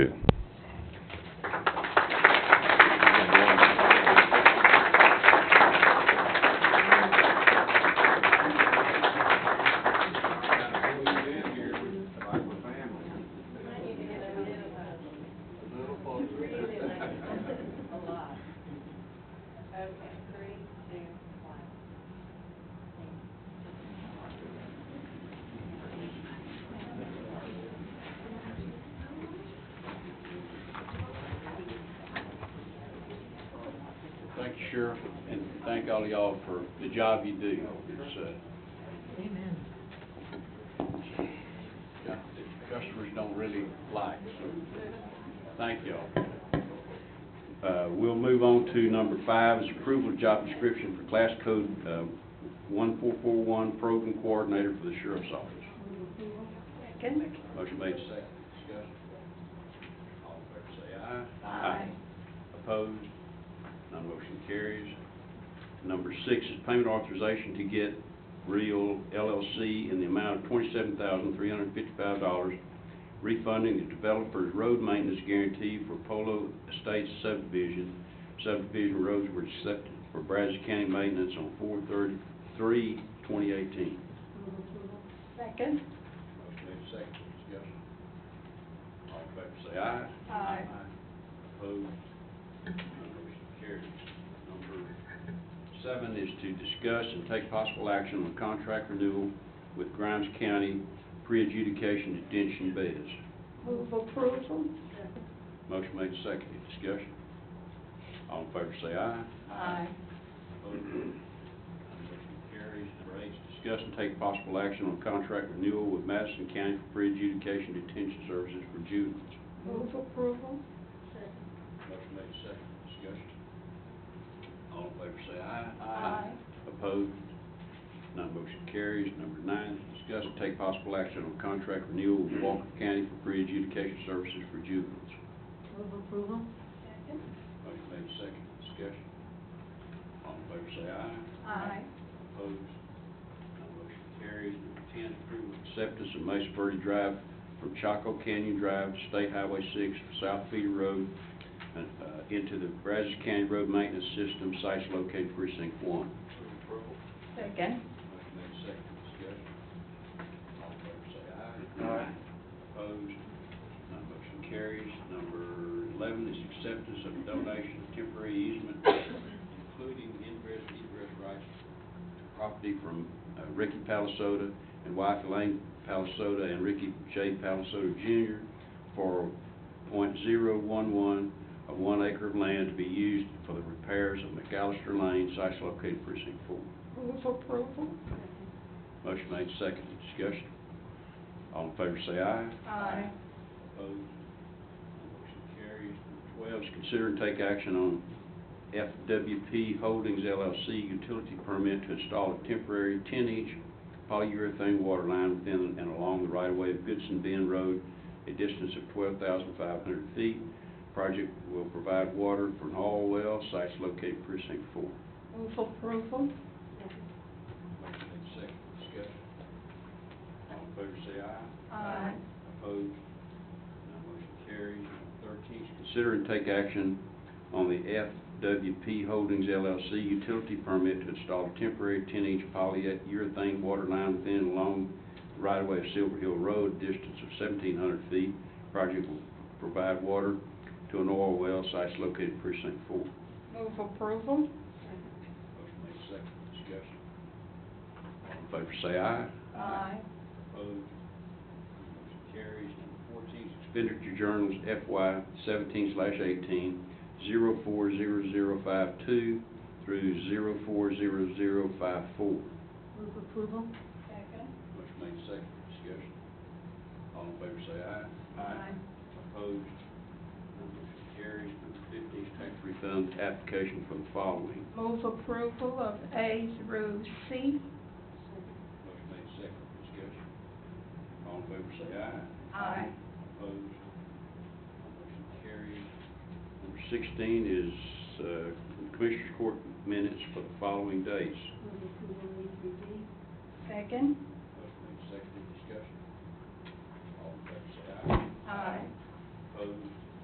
three, two, one. Thank you, Sheriff, and thank all of y'all for the job you do. It's, uh, Amen. got- the customers don't really like, so thank y'all. Uh, we'll move on to number five is approval of job description for class code, uh, one four four one program coordinator for the sheriff's office. Second. Motion made, second, discussion. All in favor, say aye. Aye. Opposed? None motion carries. Number six is payment authorization to get Real LLC in the amount of twenty-seven thousand, three hundred and fifty-five dollars, refunding the developer's road maintenance guarantee for Polo Estates subdivision. Subdivision roads were accepted for Brazos County maintenance on four thirty-three, twenty eighteen. Motion Second. made second, discussion. All in favor say aye. Aye. Opposed? None motion carries. Number seven is to discuss and take possible action on contract renewal with Grimes County pre-adjudication detention beds. Move approval. Motion made second, discussion. All in favor say aye. Aye. Opposed? None motion carries. Number eight is discuss and take possible action on contract renewal with Madison County for pre-adjudication detention services for juveniles. Move approval. Motion made second, discussion. All in favor say aye. Aye. Opposed? None motion carries. Number nine, is discuss and take possible action on contract renewal with Walker County for pre-adjudication services for juveniles. Move approval? Motion made second, discussion. All in favor say aye. Aye. Opposed? None motion carries. Number ten, approval of acceptance of Mesa Verde Drive from Chaco Canyon Drive to State Highway six, South Feeder Road, uh, uh, into the Brazos County Road Maintenance System, sites located precinct one. Second. Motion made second, discussion. All in favor say aye. Aye. Opposed? None motion carries. Number eleven is acceptance of donation of temporary easement, including ingress and egress rights to property from uh, Ricky Palisota and wife Elaine Palisota and Ricky J. Palisota Jr. for point zero one one of one acre of land to be used for the repairs of McAllister Lane, sites located precinct four. Move approval. Motion made, second discussion. All in favor say aye. Aye. Opposed? Motion carries. Number Twelve is consider and take action on FWP Holdings LLC utility permit to install a temporary ten-inch polyurethane water line within and along the right-of-way of Goodson Bend Road, a distance of twelve thousand five hundred feet. Project will provide water for an all well, sites located precinct four. Move approval. Motion made, second discussion. All in favor say aye. Aye. Opposed? None motion carries. Thirteen, consider and take action on the FWP Holdings LLC utility permit to install a temporary ten-inch polyurethane water line within and along the right-of-way of Silver Hill Road, distance of seventeen hundred feet. Project will provide water to an oil well, sites located precinct four. Move approval. Motion made second, discussion. All in favor say aye. Aye. Opposed? Motion carries. Number fourteen is expenditure journals FY seventeen slash eighteen, zero four zero zero five two through zero four zero zero five four. Move approval? Second. Motion made second, discussion. All in favor say aye. Aye. Opposed? None motion carries. Number fifteen is tax refund application for the following. Move approval of A through C. Motion made second, discussion. All in favor say aye. Aye. Opposed? Motion carries. Number sixteen is, uh, Commissioners Court minutes for the following days. Motion Second. made, seconded, discussion. All in favor, say aye. Aye.